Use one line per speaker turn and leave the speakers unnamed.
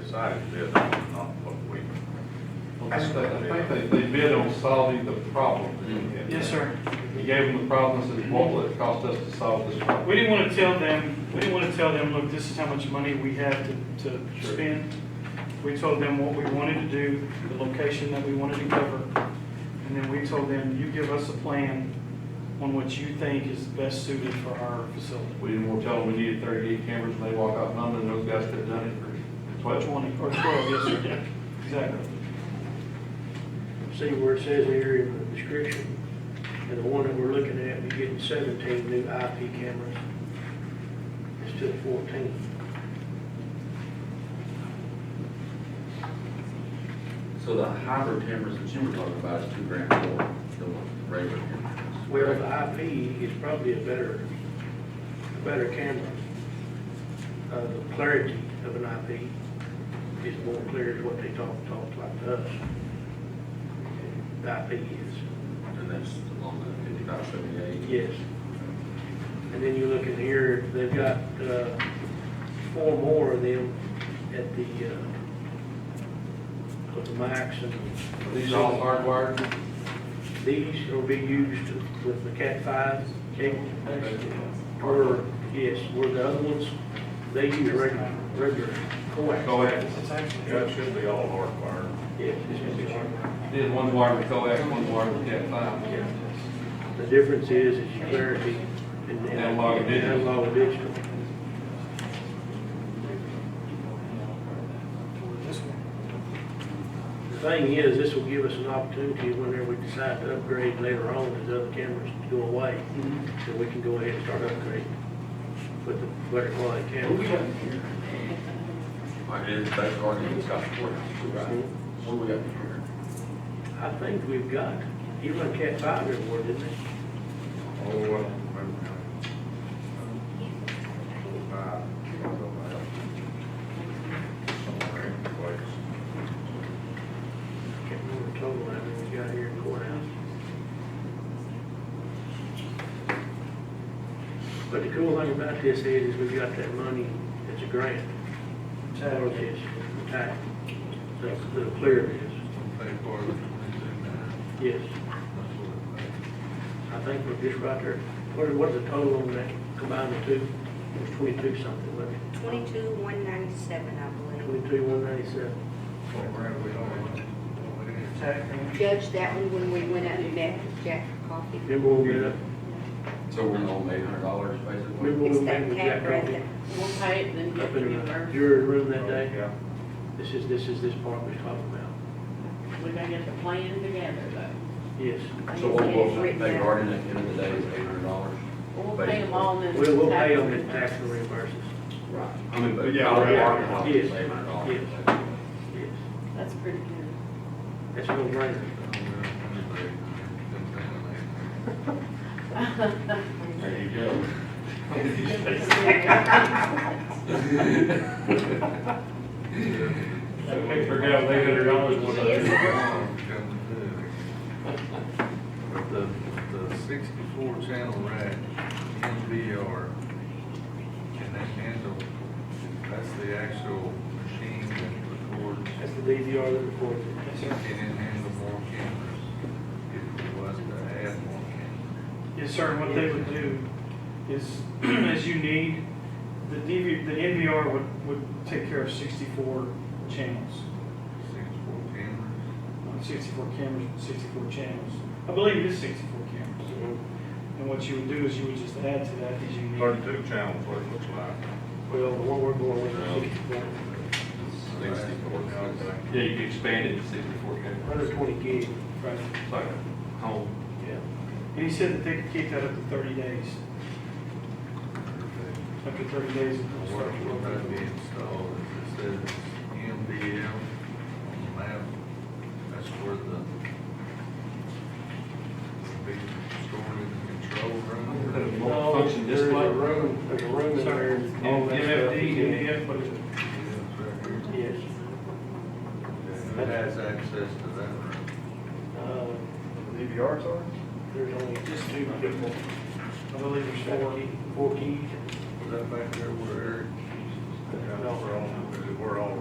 decided to bid on, not what we.
I think they, I think they, they bid on solving the problem. that we had.
Mm-hmm. Yes, sir.
We gave them the problem, and said, what will it cost us to solve this problem?
We didn't want to tell them, we didn't want to tell them, look, this is how much money we have to, to
Sure.
spend. We told them what we wanted to do, the location that we wanted to cover. And then we told them, you give us a plan on what you think is best suited for our facility.
We didn't want to tell them we needed thirty-eight cameras, and they walk out, none of those guys could have done it for twelve.
Twenty, or twelve, yes, sir, yeah, exactly.
See where it says here in the description, and the one that we're looking at, we're getting seventeen new IP cameras. It's to fourteen.
So the hybrid cameras that you were talking about is two grand more than what the regular cameras.
Well, the IP is probably a better, a better camera. Uh, the clarity of an IP is more clear is what they talk, talk like to us. The IP is,
And that's on the fifty-five seventy-eight.
yes. And then you look in here, they've got, uh, four more of them at the, uh, with the max and.
Are these all hardwired?
These will be used with the Cat five cable. Or, yes, where the other ones, they use regular, regular coax.
Go ahead.
That should be all hardwired.
Yes, it's gonna be hard.
Did one wired with coax, one wired with cat five.
The difference is, is clarity and. and-
Analog and digital.
Analog and digital.
This one.
The thing is, this will give us an opportunity whenever we decide to upgrade later on, as other cameras go away,
Mm-hmm.
that we can go ahead and start upgrading with the better quality cameras.
Like, it's, that's already in the Scotch Court. What do we got here?
I think we've got, even a Cat five reward, didn't they?
Oh, well, maybe.
Can't remember the total, I mean, we got here in courthouse. But the cool thing about this is, is we've got that money, it's a grant, for this, tax, that's the clear it is, yes. I think we're just right there, what, what's the total on that, combined the two, it's twenty-two something, wasn't it?
Twenty-two, one ninety-seven, I believe.
Twenty-two, one ninety-seven.
Judge, that one when we went out and met with Jack for coffee.
Remember when we, met up-
So we're on eight hundred dollars basically?
remember when
It's
we met
that
with Jack
cat right there.
Roby
We'll pay it, then
up
get
in the
reimbursed.
jury room that day?
Yeah.
This is, this is this part we're talking about,
We're gonna get the plan together, though.
yes.
So what was that, they guarding at the end of the day is eight hundred dollars?
We'll pay them all in.
We'll, we'll pay them in tax and reimbursements,
Right. I mean, but.
Yeah,
Our
right.
parking lot is
Yes.
eight hundred dollars.
yes.
That's pretty good.
That's no brainer.
There you go.
They figured out eight hundred dollars was
The, the sixty-four channel rack, NVR, can that handle, that's the actual machine that records,
That's the DVR that records
Yes,
can
sir.
it handle more cameras? If it was to add more cameras,
Yes, sir, and what they would do is, as you need, the DV, the NVR would, would take care of sixty-four channels,
sixty-four cameras?
uh, sixty-four cameras, sixty-four channels. I believe it is sixty-four cameras.
it.
And what you would do is you would just add to that as you need.
Thirty-two channels, what it looks like.
Well, the one we're going with is sixty-four,
Sixty-four.
Yeah, you can expand it to sixty-four cameras.
hundred twenty gig.
Right.
It's like a home.
Yeah.
And he said that they could keep that up to thirty days, up to thirty days. of
What will that be
construction.
installed, it says MDL on the map, that's where the be stored in the control room.
Multi-function
There's a
display.
room, there's a room in there. and all that stuff.
MFD, MDF, what is it?
Yes.
Who has access to that room?
Uh,
DVRs are?
There's only just two people.
I believe there's
Four
four.
key- four keys.
Was that back there where Eric?
Yeah, we're on, we're